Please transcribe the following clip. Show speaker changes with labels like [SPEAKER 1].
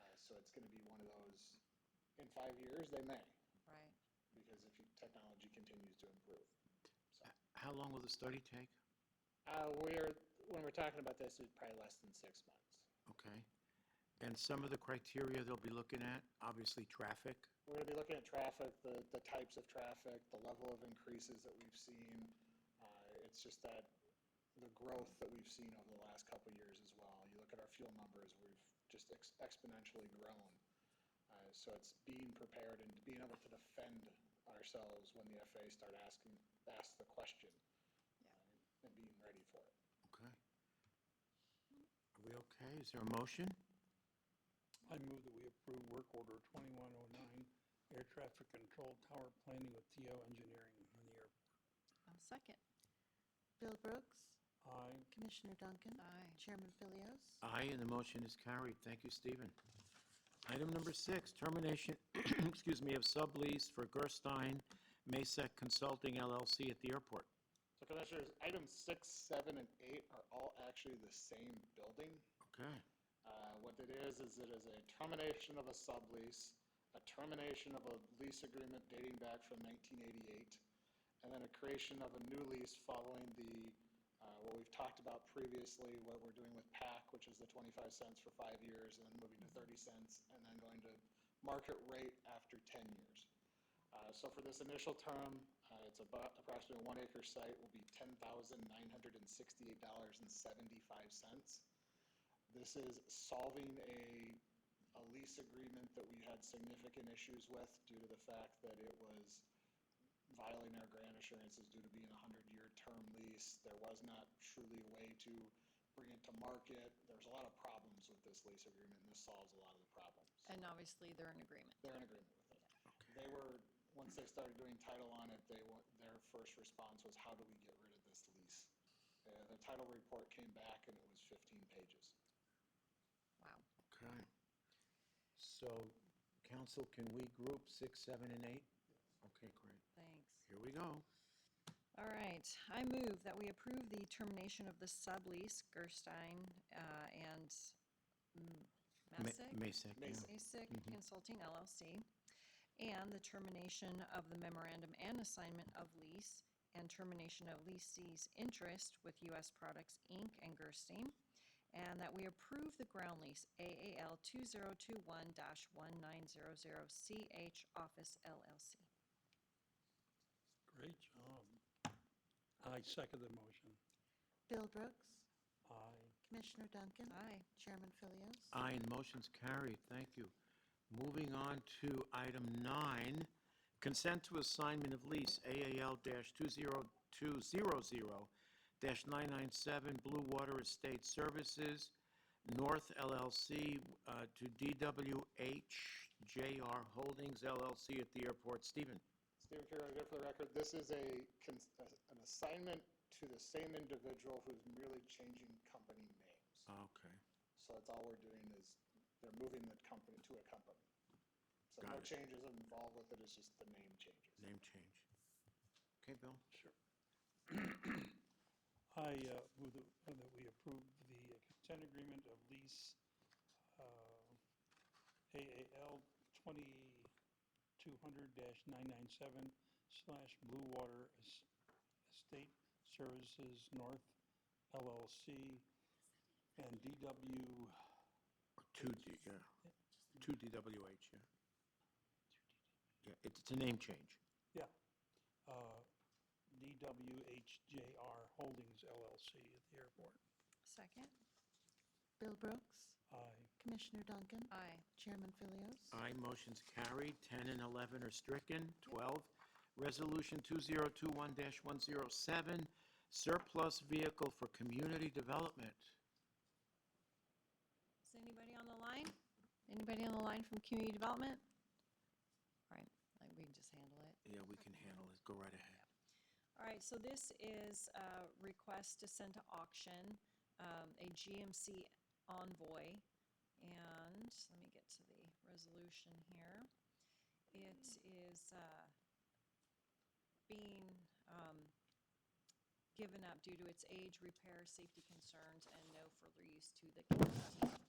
[SPEAKER 1] Uh, So it's gonna be one of those, in five years, they may,
[SPEAKER 2] right?
[SPEAKER 1] because if you- technology continues to improve. So,
[SPEAKER 3] How long will the study take?
[SPEAKER 1] Uh, we're, when we're talking about this, it's probably less than six months.
[SPEAKER 3] Okay. And some of the criteria they'll be looking at, obviously traffic.
[SPEAKER 1] We're gonna be looking at traffic, the, the types of traffic, the level of increases that we've seen. Uh, it's just that the growth that we've seen over the last couple of years as well. You look at our fuel numbers, we've just ex- exponentially grown. Uh, so it's being prepared and being able to defend ourselves when the FAA start asking, ask the question.
[SPEAKER 2] Yeah.
[SPEAKER 1] uh, And being ready for it.
[SPEAKER 3] Okay. Are we okay? Is there a motion?
[SPEAKER 4] I move that we approve work order 2109, air traffic control tower planning with TO Engineering on the airport.
[SPEAKER 2] I'll second.
[SPEAKER 5] Bill Brooks,
[SPEAKER 4] Aye.
[SPEAKER 5] Commissioner Duncan,
[SPEAKER 2] Aye.
[SPEAKER 5] Chairman Philios.
[SPEAKER 3] Aye, and the motion is carried. Thank you, Stephen. Item number six, termination, excuse me, of sublease for Gerstein Masek Consulting LLC at the airport.
[SPEAKER 1] So Commissioners, items six, seven, and eight are all actually the same building.
[SPEAKER 3] Okay.
[SPEAKER 1] Uh, What it is, is it is a termination of a sublease, a termination of a lease agreement dating back from 1988, and then a creation of a new lease following the, uh, what we've talked about previously, what we're doing with PAC, which is the 25 cents for five years, and then moving to 30 cents, and then going to market rate after 10 years. Uh, So for this initial term, uh, it's about approximately one acre site will be $10,968.75. This is solving a, a lease agreement that we had significant issues with due to the fact that it was violating our grant assurances due to being a hundred-year term lease. There was not truly a way to bring it to market. There's a lot of problems with this lease agreement, and this solves a lot of the problems.
[SPEAKER 2] And obviously, they're in agreement.
[SPEAKER 1] They're in agreement with it. They were, once they started doing title on it, they, wa- their first response was, how do we get rid of this lease? Uh, the title report came back and it was fifteen pages.
[SPEAKER 2] Wow.
[SPEAKER 3] Okay. So, council, can we group six, seven, and eight? Okay, great.
[SPEAKER 2] Thanks.
[SPEAKER 3] Here we go.
[SPEAKER 2] All right, I move that we approve the termination of the sublease, Gerstein uh, and mm, M-
[SPEAKER 3] Ma-
[SPEAKER 2] Masick,
[SPEAKER 3] Masek, yeah.
[SPEAKER 1] Masek.
[SPEAKER 2] Masick Consulting LLC, and the termination of the memorandum and assignment of lease and termination of leasee's interest with U.S. Products, Inc. and Gerstein, and that we approve the ground lease AAL 2021-1900CH Office LLC.
[SPEAKER 4] Great job. I second the motion.
[SPEAKER 5] Bill Brooks,
[SPEAKER 4] Aye.
[SPEAKER 5] Commissioner Duncan.
[SPEAKER 2] Aye.
[SPEAKER 5] Chairman Philios.
[SPEAKER 3] Aye, and motion's carried, thank you. Moving on to item nine, consent to assignment of lease AAL-20200-997 Blue Water Estate Services, North LLC, uh, to DWHJR Holdings LLC at the airport. Stephen?
[SPEAKER 1] Stephen Carroll, again for the record, this is a, cons- a- an assignment to the same individual who's merely changing company names.
[SPEAKER 3] Okay.
[SPEAKER 1] So that's all we're doing is, they're moving the company to a company. So no
[SPEAKER 3] Got it.
[SPEAKER 1] changes involved with it, it's just the name changes.
[SPEAKER 3] Name change. Okay, Bill?
[SPEAKER 4] Sure. I uh, move that move that we approve the consent agreement of lease uh, AAL 2200-997 slash Blue Water Es- Estate Services North LLC and DW,
[SPEAKER 3] Two D, yeah. Two DWH, yeah. Yeah, it's it's a name change.
[SPEAKER 4] yeah, uh, DWHJR Holdings LLC at the airport.
[SPEAKER 2] Second?
[SPEAKER 5] Bill Brooks,
[SPEAKER 4] Aye.
[SPEAKER 5] Commissioner Duncan.
[SPEAKER 2] Aye.
[SPEAKER 5] Chairman Philios.
[SPEAKER 3] Aye, motion's carried. 10 and 11 are stricken. 12, Resolution 2021-107, surplus vehicle for community development.
[SPEAKER 2] Is anybody on the line? Anybody on the line from community development? All right, like, we can just handle it.
[SPEAKER 3] Yeah, we can handle it. Go right ahead.
[SPEAKER 2] All right, so this is a request to send to auction, um, a GMC Envoy. And let me get to the resolution here. It is, uh, being, um, given up due to its age, repair, safety concerns, and no further use to the county.